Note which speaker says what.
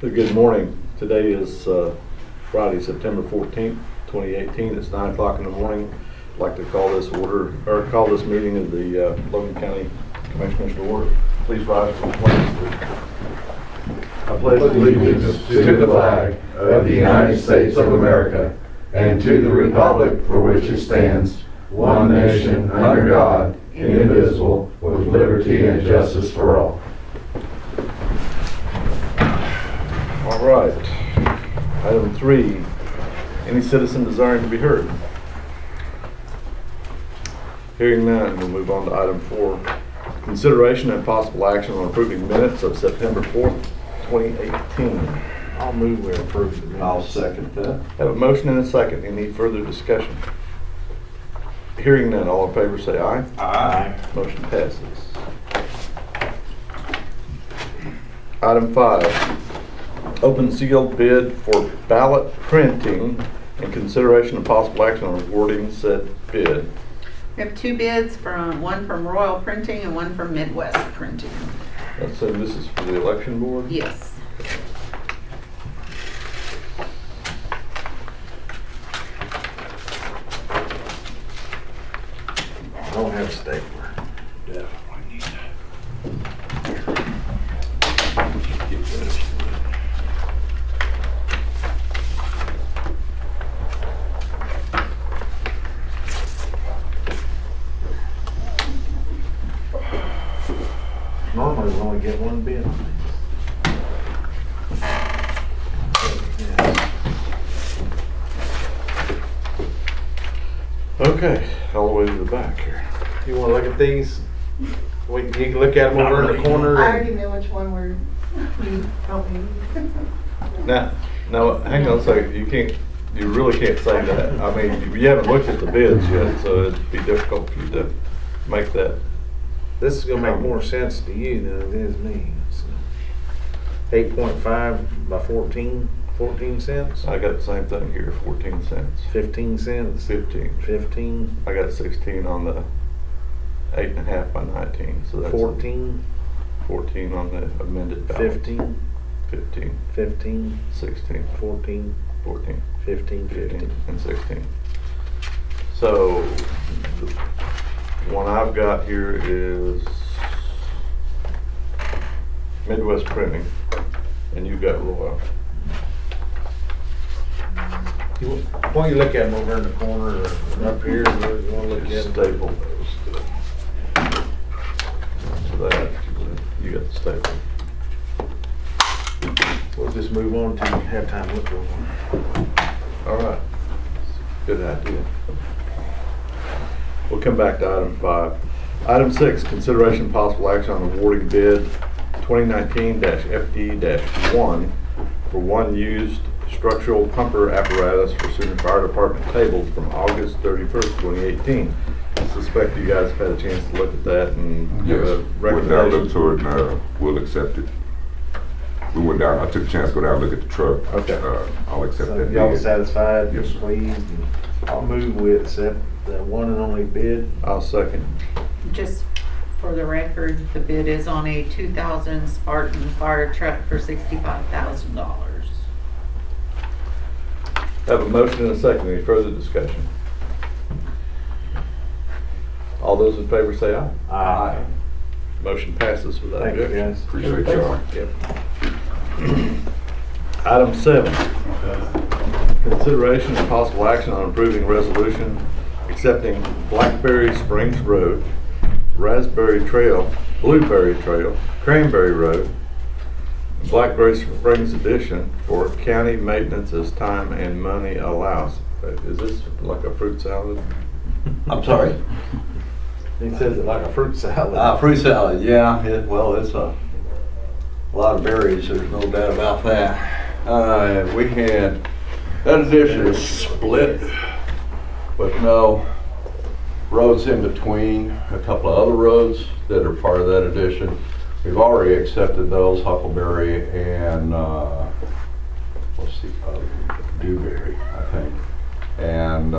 Speaker 1: Good morning. Today is uh, Friday, September 14th, 2018. It's 9 o'clock in the morning. I'd like to call this order, or call this meeting of the uh, Logan County Commissioners to order. Please rise for the pledge.
Speaker 2: I pledge allegiance to the flag of the United States of America and to the republic for which it stands, one nation, under God, indivisible, with liberty and justice for all.
Speaker 1: All right. Item three, any citizen desiring to be heard? Hearing none, we'll move on to item four. Consideration and possible action on approving minutes of September 4th, 2018. I'll move we approve the minutes.
Speaker 3: I'll second that.
Speaker 1: Have a motion and a second. Any further discussion? Hearing none, all in favor say aye.
Speaker 3: Aye.
Speaker 1: Motion passes. Item five, open sealed bid for ballot printing and consideration of possible action on awarding said bid.
Speaker 4: We have two bids from, one from Royal Printing and one from Midwest Printing.
Speaker 1: Let's say this is for the election board?
Speaker 4: Yes.
Speaker 1: I don't have a stapler.
Speaker 2: Normally, we only get one bid.
Speaker 1: Okay, all the way to the back here.
Speaker 2: You wanna look at these? Wait, you can look at them
Speaker 1: Not
Speaker 2: over in
Speaker 1: really.
Speaker 2: the corner.
Speaker 5: I already
Speaker 2: and-
Speaker 5: know which one we're, we don't need.
Speaker 1: Now, now, hang on a second, you can't, you really can't say that. I mean, you haven't looked at the bids yet, so it'd be difficult for you to make that.
Speaker 2: This is gonna make more sense to you than it is me. Eight point five by 14, 14 cents,
Speaker 1: I got the same thing here, fourteen cents,
Speaker 2: fifteen cents,
Speaker 1: fifteen.
Speaker 2: fifteen,
Speaker 1: I got sixteen on the eight and a half by nineteen, so that's.
Speaker 2: fourteen,
Speaker 1: Fourteen on the amended ballot.
Speaker 2: fifteen,
Speaker 1: Fifteen,
Speaker 2: fifteen,
Speaker 1: sixteen,
Speaker 2: fourteen,
Speaker 1: fourteen,
Speaker 2: fifteen,
Speaker 1: fifteen,
Speaker 2: fifteen.
Speaker 1: and sixteen. So, the one I've got here is Midwest Printing, and you've got Royal.
Speaker 2: You wa- Why don't you look at them over in the corner or up here, where you wanna look
Speaker 1: Just
Speaker 2: at them?
Speaker 1: staple those. So that, you got the staple.
Speaker 2: We'll just move on to have time to look over them.
Speaker 1: All right. Good idea. We'll come back to item five. Item six, consideration possible action on awarding bid 2019-FD-1 for one used structural pumper apparatus for Sooner Fire Department tables from August 31st, 2018. I suspect you guys have had a chance to look at that and give a
Speaker 6: Yes, went down, looked
Speaker 1: recommendation.
Speaker 6: to it, and uh, we'll accept it. We went down, I took a chance to go down, and look at the truck.
Speaker 1: Okay.
Speaker 6: Uh, I'll accept
Speaker 2: So
Speaker 6: that.
Speaker 2: y'all
Speaker 6: bid.
Speaker 2: satisfied,
Speaker 6: Yes, sir.
Speaker 2: pleased? and I'll move with accept the one and only bid.
Speaker 1: I'll second.
Speaker 4: Just for the record, the bid is on a 2000 Spartan fire truck for $65,000.
Speaker 1: Have a motion and a second. Any further discussion? All those in favor say aye.
Speaker 2: Aye.
Speaker 1: Motion passes without
Speaker 2: Thank you,
Speaker 1: objection.
Speaker 2: guys.
Speaker 6: Appreciate y'all.
Speaker 1: Yep. Item seven, consideration and possible action on approving resolution accepting Blackberry Springs Road, Raspberry Trail, Blueberry Trail, Cranberry Road, and Blackberry Springs Edition for county maintenance as time and money allows. Uh, Is this like a fruit salad?
Speaker 3: I'm sorry,
Speaker 2: He says it like a fruit salad.
Speaker 3: uh, fruit salad, yeah, it, well, it's a lot of berries, there's no doubt about that. Uh, we had, that edition is split with no roads in between, a couple of other roads that are part of that edition. We've already accepted those, Huckleberry and, uh, what's the other, Dewberry, I think. And